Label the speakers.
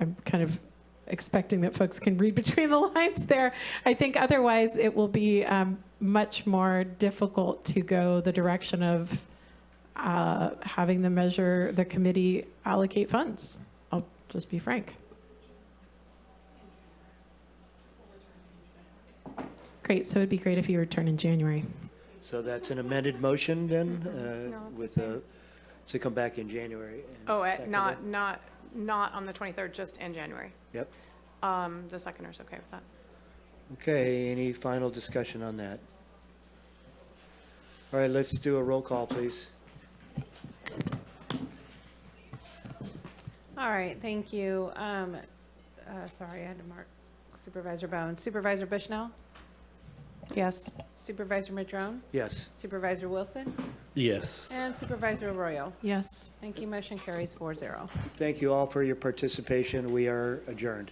Speaker 1: I'm kind of expecting that folks can read between the lines there. I think otherwise it will be um, much more difficult to go the direction of uh, having the measure, the committee allocate funds. I'll just be frank. Great, so it'd be great if you return in January.
Speaker 2: So that's an amended motion then,
Speaker 3: Mm-hmm. No,
Speaker 2: uh,
Speaker 3: it's the
Speaker 2: with
Speaker 3: same.
Speaker 2: a, to come back in January. and
Speaker 3: Oh, eh,
Speaker 2: second it?
Speaker 3: not, not, not on the 23rd, just in January.
Speaker 2: Yep.
Speaker 3: Um, The second is okay with that.
Speaker 2: Okay, any final discussion on that? All right, let's do a roll call, please.
Speaker 4: All right, thank you. Um, uh, sorry, I had to mark Supervisor Bowen. Supervisor Bushnell?
Speaker 1: Yes.
Speaker 4: Supervisor Madrone?
Speaker 2: Yes,
Speaker 4: Supervisor Wilson?
Speaker 5: Yes.
Speaker 4: And Supervisor Arroyo?
Speaker 1: Yes.
Speaker 4: Thank you, motion carries four zero.
Speaker 2: thank you all for your participation. We are adjourned.